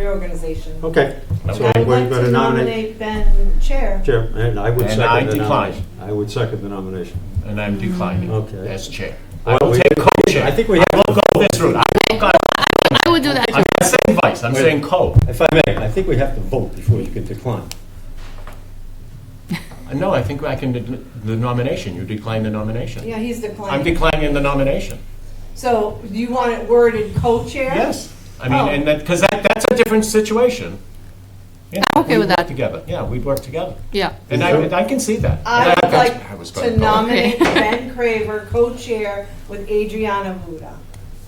reorganization. Okay. So I we're would like going to nominate Ben chair. Chair, and I would And second the I nomination. decline. I would second the nomination. and I'm declining Okay. as chair. I Well, will we- take co-chair. I think we have- I will go this route. I- I would do that I'm not saying vice, I'm saying co. If I may, I think we have to vote before you can decline. No, I think I can, de- the nomination, you decline the nomination. Yeah, he's I'm declining. declining the nomination. So do you want it worded co-chair? Yes. I mean, Oh. and that, because that, that's a different situation. Yeah, I'm okay we'd with work that. Together, yeah, we'd work together. Yeah. And I, and I can see that. I would And I like was to gonna go. nominate Ben Craver, co-chair with Adriana Vuda.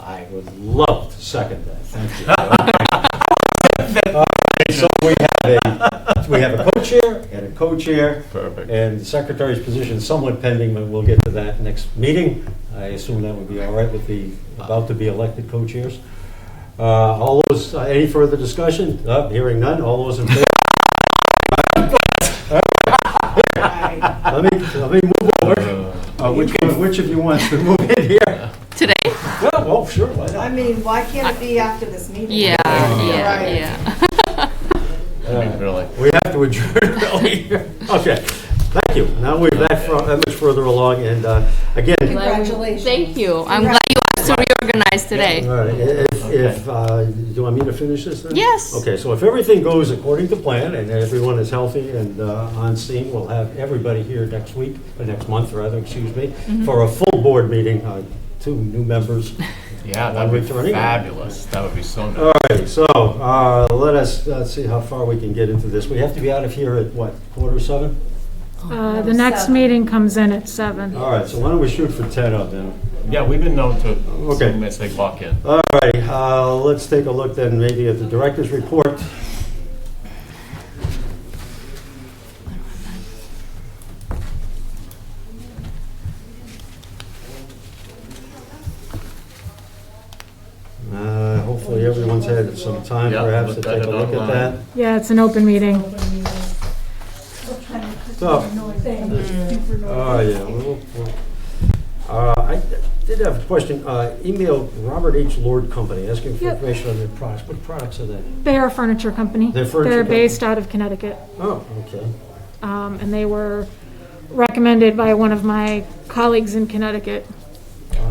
I would love to second that, thank you. All right, So we have a, we have a co-chair and a co-chair. Perfect. And the secretary's position is somewhat pending, but we'll get to that next meeting. I assume that would be all right with the about-to-be-elected co-chairs. Uh, All those, uh, any further discussion? Uh, Hearing none, all those in favor? I- Let me, let me move over. Uh, Which, one- which of you wants to move in here? Today? Yeah, well, Oh, sure, why I not? mean, why can't it be after this meeting? Yeah, yeah, Right. yeah. I mean, Really. We have to adjourn early. Okay, thank you. Now we're that far- that much further along, and uh, again, all Congratulations. Thank you. I'm glad you asked to reorganize today. right, if, if, uh, do you want me to finish this then? Yes. Okay, so if everything goes according to plan, and everyone is healthy and uh, on scene, we'll have everybody here next week, or next month, rather, excuse me, Mm-hmm. for a full board meeting, uh, two new members. Yeah, One that would returning. be fabulous. That would be so nice. All right, so uh, let us uh, see how far we can get into this. We have to be out of here at, what, quarter seven? Uh, The next meeting comes in at seven. All right, so why don't we shoot for 10 of them? Yeah, we've been known to, Okay. assume as they walk in. All right, uh, let's take a look then maybe at the director's report. Uh, Hopefully everyone's had some time Yeah, perhaps to looked take at a it look at online. that. Yeah, it's an open meeting. So, Oh, yeah. well, well. Uh, I did have a question. Uh, Email Robert H. Lord Company asking for Yep. information on their products. What products are they? They are a furniture company. They're a furniture They're company. based out of Connecticut, Oh, okay. um, and they were recommended by one of my colleagues in Connecticut.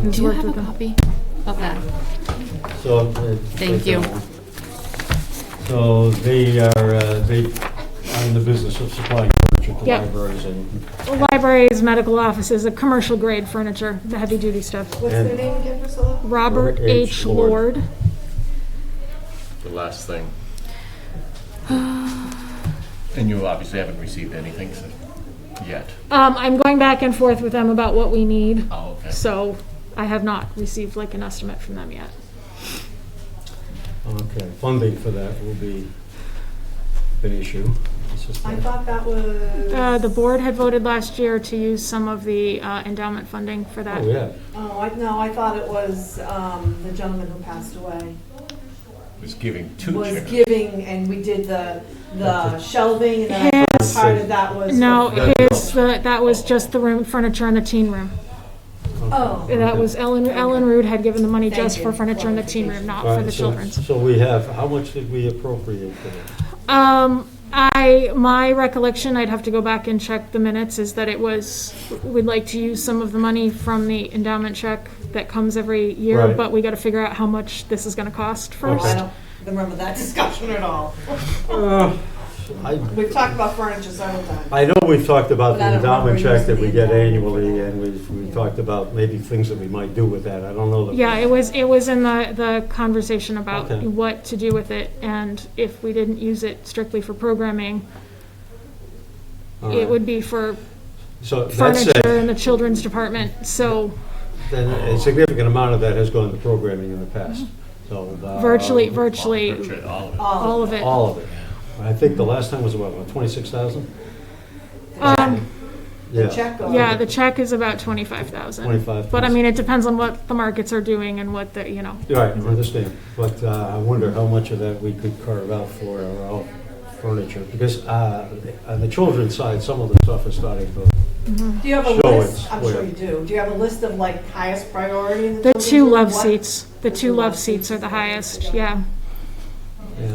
who's Do you worked have with a them. copy of that? So. uh, Thank you. So they are, uh, they are in the business of supplying furniture to Yep. libraries and. Libraries, medical offices, a commercial grade furniture, the heavy duty stuff. What's their name again, Priscilla? Robert H. Lord. Lord. The last thing. And you obviously haven't received anything so- yet. Um, I'm going back and forth with them about what we need, Oh, okay. so I have not received like an estimate from them yet. Okay, funding for that will be an issue. It's just I that- thought that was. Uh, The board had voted last year to use some of the uh, endowment funding for that. Oh, yeah. Oh, I, no, I thought it was, um, the gentleman who passed away Was giving two was chairs. giving, and we did the, the shelving, and then I thought part of that was. No, No, his, the- that was just the room, furniture in the teen room. Oh, That was Ellen, Ellen Rude had given the money Thank just you. for furniture in the teen room, not All for right, the so- children's. So we have, how much did we appropriate for that? Um, I, my recollection, I'd have to go back and check the minutes, is that it was, we'd like to use some of the money from the endowment check that comes every year, Right. but we gotta figure out how much this is gonna cost I first. don't remember that discussion at all. Uh, I, We've talked about furniture several times. I know we've talked about But I the don't endowment remember check that using we the get endowment for annually, that. and we, we talked about maybe things that we might do with that, I don't know. that- Yeah, it was, it was in the, the conversation about Okay. what to do with it, and if we didn't use it strictly for programming, All right. it would be for So that furniture in said, the children's department, so then Oh. a significant amount of that has gone to programming in the past, Mm-hmm. so. uh, virtually, virtually, Virtually all of it. All, all of it. All of it. I think the last time was about, what, twenty-six thousand? Um, the check on. yeah, the check is about twenty-five thousand. 25,000. But I mean, it depends on what the markets are doing and what the, you know, Right, I understand, but uh, I wonder how much of that we could carve out for our own furniture, because uh, on the children's side, some of the stuff is starting to, Do you have a Show list? it I'm sure where. you do. Do you have a list of like highest priority in the the children's two room? love What- seats, the two love seats are the highest, yeah.